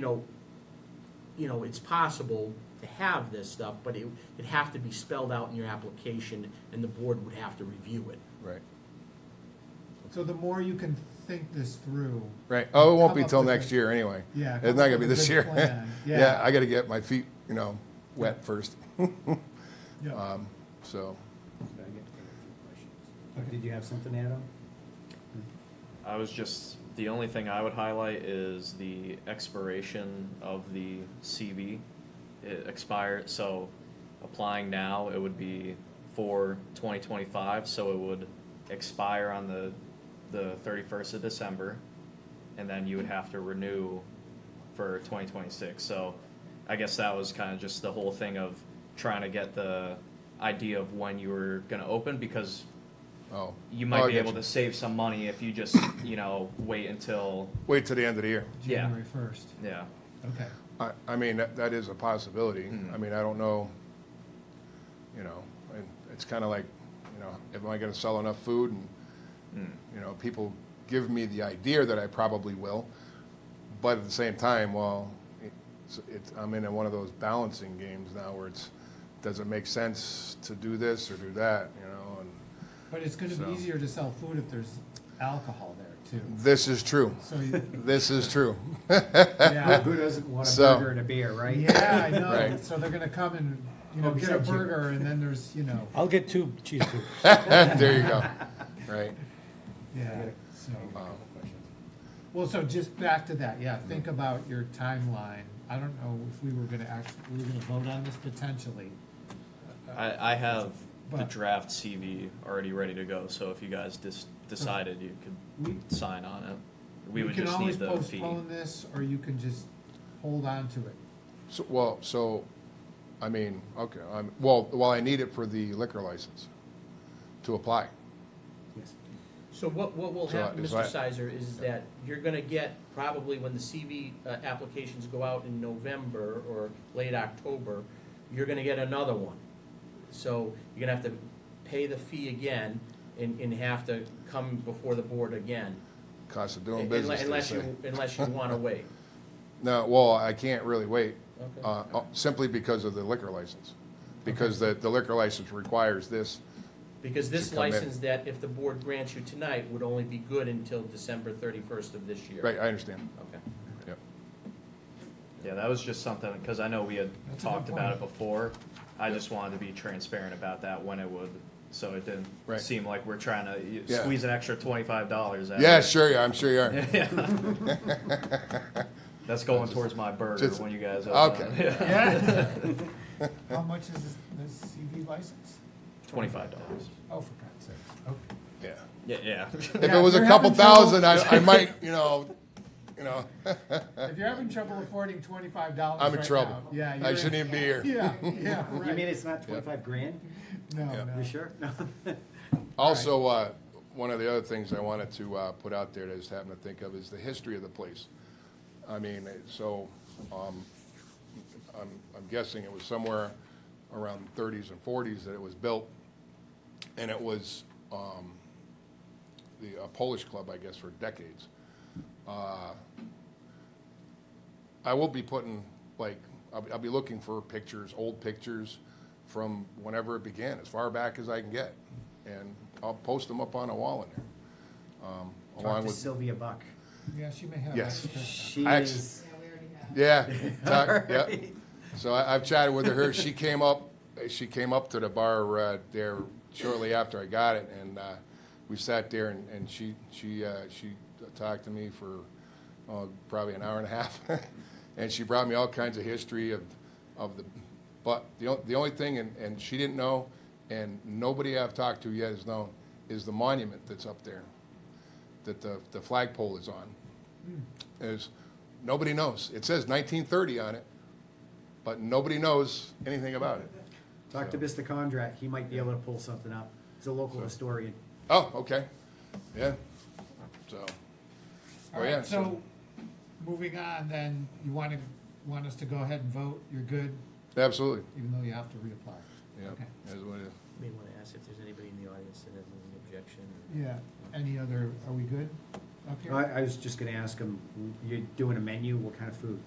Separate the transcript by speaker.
Speaker 1: you know, you know, it's possible to have this stuff, but it, it'd have to be spelled out in your application, and the board would have to review it.
Speaker 2: Right,
Speaker 3: So the more you can think this through,
Speaker 2: right. Oh, it won't be
Speaker 3: Come up
Speaker 2: till
Speaker 3: with a-
Speaker 2: next year anyway.
Speaker 3: Yeah,
Speaker 2: It's
Speaker 3: come
Speaker 2: not
Speaker 3: up
Speaker 2: gonna be
Speaker 3: with a
Speaker 2: this
Speaker 3: good
Speaker 2: year.
Speaker 3: plan.
Speaker 2: Yeah,
Speaker 3: Yeah.
Speaker 2: I gotta get my feet, you know, wet first,
Speaker 3: yeah.
Speaker 2: um, so.
Speaker 4: But I get to have a few questions. Did you have something to add on?
Speaker 5: I was just, the only thing I would highlight is the expiration of the CV. It expired, so applying now, it would be for twenty twenty-five, so it would expire on the, the thirty-first of December. And then you would have to renew for twenty twenty-six, so I guess that was kind of just the whole thing of trying to get the idea of when you were gonna open, because
Speaker 2: Oh.
Speaker 5: you
Speaker 2: Oh,
Speaker 5: might
Speaker 2: I
Speaker 5: be
Speaker 2: get
Speaker 5: able
Speaker 2: you.
Speaker 5: to save some money if you just you know wait until
Speaker 2: Wait till the end of the year.
Speaker 5: Yeah.
Speaker 3: January first,
Speaker 5: yeah
Speaker 3: okay.
Speaker 2: I, I mean, that, that is a possibility.
Speaker 5: Mm.
Speaker 2: I mean, I don't know, you know, and it's kind of like, you know, am I gonna sell enough food? And,
Speaker 5: Mm.
Speaker 2: you know, people give me the idea that I probably will, but at the same time, well, it's, it's, I'm in one of those balancing games now where it's, does it make sense to do this or do that, you know? And
Speaker 3: But it's gonna
Speaker 2: So. Mm.
Speaker 3: be easier to sell food if there's alcohol there too.
Speaker 2: this is true.
Speaker 3: So, you-
Speaker 2: This is true.
Speaker 3: yeah,
Speaker 4: Who doesn't want a
Speaker 2: So-
Speaker 4: burger and a beer, right?
Speaker 3: yeah, I know,
Speaker 2: Right.
Speaker 3: so they're gonna come and, you know,
Speaker 4: Oh,
Speaker 3: get a
Speaker 4: thank you.
Speaker 3: burger and then there's, you know,
Speaker 6: I'll get two cheeseburgers.
Speaker 2: There you go. Right.
Speaker 3: yeah, so.
Speaker 2: Um,
Speaker 3: Well, so just back to that, yeah, think about your timeline. I don't know if we were gonna act, we were gonna vote on this potentially.
Speaker 5: I, I have the
Speaker 3: But-
Speaker 5: draft cv already ready to go so if you guys dis- decided you could
Speaker 3: We-
Speaker 5: sign on it we
Speaker 3: You
Speaker 5: would
Speaker 3: can
Speaker 5: just
Speaker 3: always
Speaker 5: need the fee
Speaker 3: Postpone this, or you can just hold on to it.
Speaker 2: So, well, so, I mean, okay, I'm, well, well, I need it for the liquor license to apply.
Speaker 4: Yes.
Speaker 1: So what, what will
Speaker 2: So,
Speaker 1: happen,
Speaker 2: is
Speaker 1: Mr.
Speaker 2: that-
Speaker 1: Sizer, is that you're gonna get, probably when the CV uh, applications go out in November or late October, you're gonna get another one. So you're gonna have to pay the fee again and, and have to come before the board again.
Speaker 2: Cost of doing
Speaker 1: unle-
Speaker 2: business, they
Speaker 1: Unless
Speaker 2: say.
Speaker 1: you, unless you wanna wait.
Speaker 2: No, well, I can't really wait,
Speaker 1: Okay.
Speaker 2: uh, uh, simply because of the liquor license. Because the, the liquor license requires this,
Speaker 1: Because this
Speaker 2: Should come in.
Speaker 1: license that if the board grants you tonight would only be good until December thirty-first of this year.
Speaker 2: right, I understand,
Speaker 1: Okay.
Speaker 2: yep.
Speaker 5: yeah that was just something because i know we had
Speaker 3: That's a good
Speaker 5: talked about it
Speaker 3: point.
Speaker 5: before i just wanted to be transparent about that when it would so it didn't
Speaker 2: Right.
Speaker 5: seem like we're trying to y
Speaker 2: Yeah.
Speaker 5: squeeze an extra $25 out of
Speaker 2: Yeah,
Speaker 5: it.
Speaker 2: sure, yeah, I'm sure you are.
Speaker 5: Yeah. that's going towards my burger
Speaker 2: just-
Speaker 5: when you guys
Speaker 2: okay.
Speaker 5: open. Yeah.
Speaker 3: Yeah. How much is this, this CV license?
Speaker 5: Twenty-five dollars.
Speaker 3: Oh, for God's sake, okay.
Speaker 2: Yeah.
Speaker 5: Yeah, yeah.
Speaker 2: If
Speaker 3: Yeah,
Speaker 2: it was
Speaker 3: if
Speaker 2: a
Speaker 3: you're
Speaker 2: couple
Speaker 3: having trouble-
Speaker 2: thousand, I, I might, you know, you know,
Speaker 3: If you're having trouble affording twenty-five dollars
Speaker 2: I'm in
Speaker 3: right
Speaker 2: trouble.
Speaker 3: now, Yeah.
Speaker 2: I
Speaker 3: you're-
Speaker 2: shouldn't even be here.
Speaker 3: Yeah, yeah, right.
Speaker 4: You mean it's not twenty-five grand?
Speaker 3: No,
Speaker 2: Yeah.
Speaker 3: no.
Speaker 4: You sure? No.
Speaker 2: Also, uh, one of the other things I wanted to uh, put out there that I just happened to think of is the history of the place. I mean, it- so um, I'm I'm guessing it was somewhere around 30s and 40s that it was built, and it was um, the a Polish club, I guess, for decades. Uh, I will be putting, like, I'll be- I'll be looking for pictures, old pictures from whenever it began, as far back as I can get. And I'll post them up on a wall in there. um,
Speaker 4: Talk
Speaker 2: Along
Speaker 4: to
Speaker 2: with,
Speaker 4: Sylvia Buck.
Speaker 3: Yeah, she may have.
Speaker 2: Yes. Oh,
Speaker 3: extra.
Speaker 4: She
Speaker 2: I actu-
Speaker 4: is,
Speaker 2: yeah, talk- yep. So I- I've chatted with her. She came up, she came up to the bar uh, there shortly after I got it, and uh, we sat there, and and she, she, uh, she talked to me for uh, probably an hour and a half. And she brought me all kinds of history of, of the, but the on- the only thing, and and she didn't know, and nobody I've talked to yet has known, is the monument that's up there, that the the flagpole is on is nobody knows. It says 1930 on it, but nobody knows anything about it.
Speaker 4: talk to Mr. Condrat, he might be able to pull something up. He's a local historian.
Speaker 2: Oh, okay, yeah. So,
Speaker 3: All
Speaker 2: oh yeah.
Speaker 3: right, so, moving on then, you wanna, want us to go ahead and vote, you're good,
Speaker 2: absolutely,
Speaker 3: even though you have to reapply?
Speaker 2: yeah.
Speaker 3: Okay.
Speaker 2: That's what it is.
Speaker 1: May want to ask if there's anybody in the audience that has an objection.
Speaker 3: Yeah, any other, are we good up
Speaker 4: I,
Speaker 3: here?
Speaker 4: I was just gonna ask him, you're doing a menu, what kind of food?